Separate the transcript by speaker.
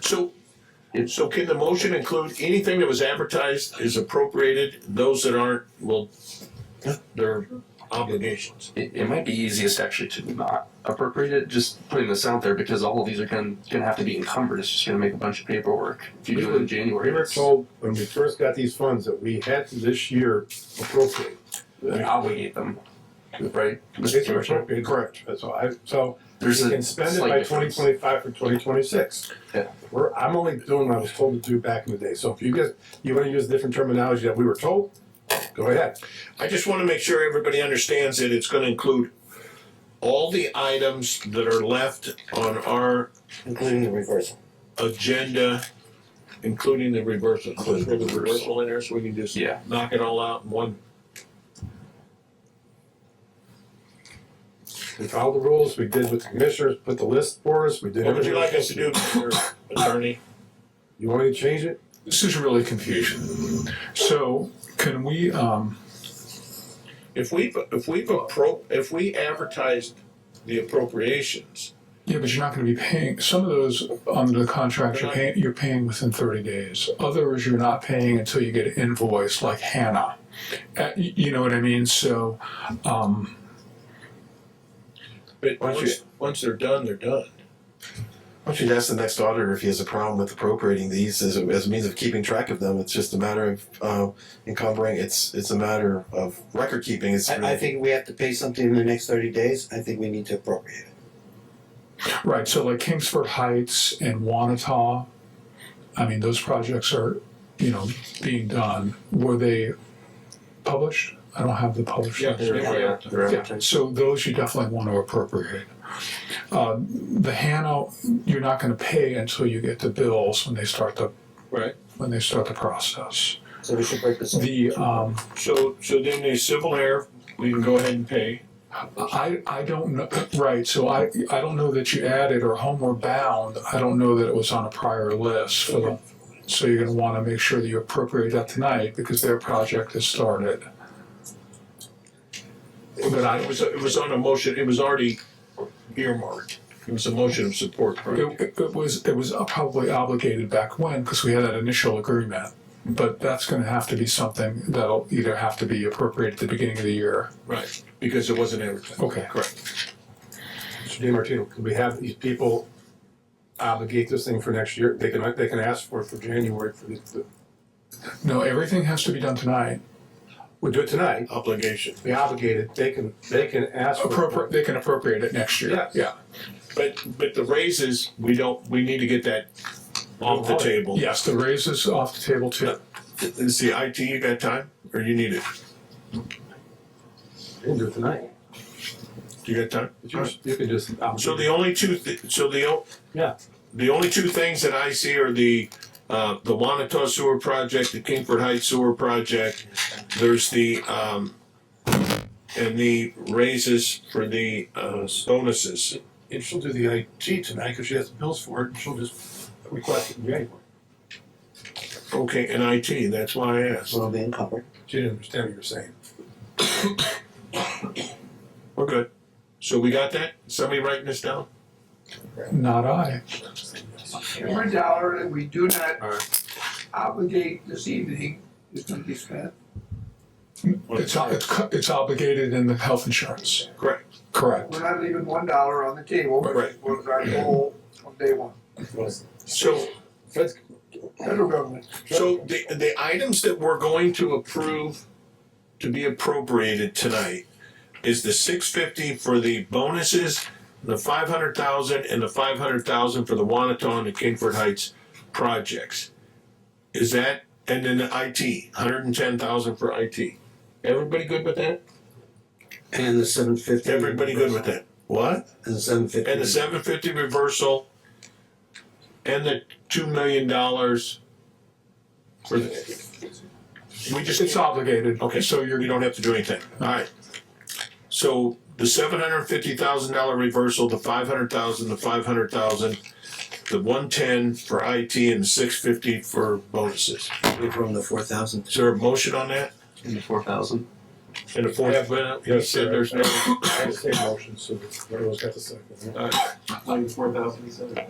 Speaker 1: So, so can the motion include anything that was advertised is appropriated, those that aren't, well, their obligations?
Speaker 2: It, it might be easiest actually to not appropriate it, just putting this out there because all of these are gonna, gonna have to be encumbered. It's just gonna make a bunch of paperwork. If you do it in January,
Speaker 3: We were
Speaker 2: it's
Speaker 3: told when we first got these funds that we had to this year appropriate.
Speaker 2: obligate them, right? Mr.
Speaker 3: It's
Speaker 2: Commissioner?
Speaker 3: appropriate, Correct, that's all I, so we
Speaker 2: There's a
Speaker 3: can spend it
Speaker 2: slight
Speaker 3: by twenty
Speaker 2: difference.
Speaker 3: twenty-five for twenty twenty-six.
Speaker 2: Yeah.
Speaker 3: We're, I'm only doing what I was told to do back in the day, so if you guys, you wanna use different terminology that we were told, go ahead.
Speaker 1: I just wanna make sure everybody understands that it's gonna include all the items that are left on our
Speaker 4: including the reversal.
Speaker 1: agenda, including the reversal. Including the reversal in there, so we can just
Speaker 2: Yeah.
Speaker 1: knock it all out in one.
Speaker 3: We followed the rules, we did with the commissioners, put the list for us, we did
Speaker 1: What would
Speaker 3: everything.
Speaker 1: you like us to do, Mr. Attorney?
Speaker 3: You want me to change it?
Speaker 5: This is really confusing. So can we, um,
Speaker 1: If we've, if we've appro, if we advertised the appropriations,
Speaker 5: yeah, but you're not gonna be paying, some of those under the contract, you're paying, you're paying within thirty days. Others you're not paying until you get an invoice like Hannah. Uh, y- you know what I mean? So, um,
Speaker 1: but
Speaker 4: Why don't
Speaker 1: once, once they're done, they're done.
Speaker 4: Why don't you ask the next auditor if he has a problem with appropriating these as a, as a means of keeping track of them? It's just a matter of uh, encumbering. It's it's a matter of record keeping. It's
Speaker 6: I, I think we have to pay something in the next thirty days, I think we need to appropriate it.
Speaker 5: right, so like Kingsford Heights and Wanata, I mean, those projects are, you know, being done. Were they published? I don't have the published.
Speaker 1: Yeah, they were.
Speaker 2: Right.
Speaker 5: Yeah, so those you definitely want to appropriate. Uh, The Hannah, you're not gonna pay until you get the bills when they start the.
Speaker 1: Right.
Speaker 5: When they start the process.
Speaker 6: So we should break this up.
Speaker 5: The, um,
Speaker 1: So, so then the civil air, we can go ahead and pay.
Speaker 5: I, I don't know, right, so I, I don't know that you added or homeward bound, I don't know that it was on a prior list for the. So you're gonna wanna make sure that you appropriate that tonight because their project has started. But I,
Speaker 1: It was, it was on a motion, it was already earmarked. It was a motion of support, right?
Speaker 5: It, it- it was, it was probably obligated back when, because we had that initial agreement. But that's gonna have to be something that'll either have to be appropriated at the beginning of the year.
Speaker 1: Right, because it wasn't advertised.
Speaker 5: Okay.
Speaker 1: Correct.
Speaker 3: Mr. DiMartino, could we have these people obligate this thing for next year? They can, they can ask for it for January for the,
Speaker 5: No, everything has to be done tonight.
Speaker 3: we'll do it tonight.
Speaker 4: Oh.
Speaker 1: Obligation.
Speaker 3: be obligated, they can, they can ask for.
Speaker 5: Appropriate, they can appropriate it next year.
Speaker 3: Yeah.
Speaker 5: Yeah,
Speaker 1: But, but the raises, we don't, we need to get that off the table.
Speaker 5: yes, the raise is off the table too.
Speaker 1: Is the IT, you got time, or you need it?
Speaker 3: You can do it tonight.
Speaker 1: You got time?
Speaker 3: You just- you can just. um,
Speaker 1: So the only two, thi- so the, o-
Speaker 3: Yeah.
Speaker 1: the only two things that I see are the, uh, the Wanata Sewer Project, the Kingford Heights Sewer Project. There's the, um, and the raises for the, uh, bonuses.
Speaker 3: And she'll do the IT tonight, cause she has the bills for it, and she'll just request it in January.
Speaker 1: Okay, and IT, that's why I asked.
Speaker 6: Will be encumbered.
Speaker 3: She didn't understand what you were saying.
Speaker 1: We're good. So we got that? Somebody writing this down?
Speaker 5: Not I.
Speaker 7: Every dollar that we do not obligate this evening is gonna be spent.
Speaker 5: It's, o- it's, co- it's obligated in the health insurance.
Speaker 1: Correct.
Speaker 5: Correct.
Speaker 7: We're not leaving one dollar on the table, which
Speaker 1: Right.
Speaker 7: was our goal from day one.
Speaker 1: So,
Speaker 7: Federal government,
Speaker 1: so the, the items that we're going to approve to be appropriated tonight is the six fifty for the bonuses, the five hundred thousand and the five hundred thousand for the Wanaton and Kingford Heights projects. Is that, and then the IT, hundred and ten thousand for IT. Everybody good with that?
Speaker 6: And the seven fifty.
Speaker 1: Everybody good with that? What?
Speaker 6: And the seven fifty.
Speaker 1: and the seven fifty reversal, and the two million dollars for the. We just,
Speaker 5: It's obligated.
Speaker 1: Okay.
Speaker 5: So you're,
Speaker 1: we don't have to do anything, alright. So the seven hundred and fifty thousand dollar reversal, the five hundred thousand, the five hundred thousand, the one ten for IT and the six fifty for bonuses.
Speaker 6: From the four thousand.
Speaker 1: Is there a motion on that?
Speaker 2: in the four thousand.
Speaker 1: And the fourth, he
Speaker 3: Yes,
Speaker 1: said
Speaker 3: sir.
Speaker 1: there's no.
Speaker 3: I have the same motion, so everyone's got the second.
Speaker 1: All right.
Speaker 2: Like four thousand, you said?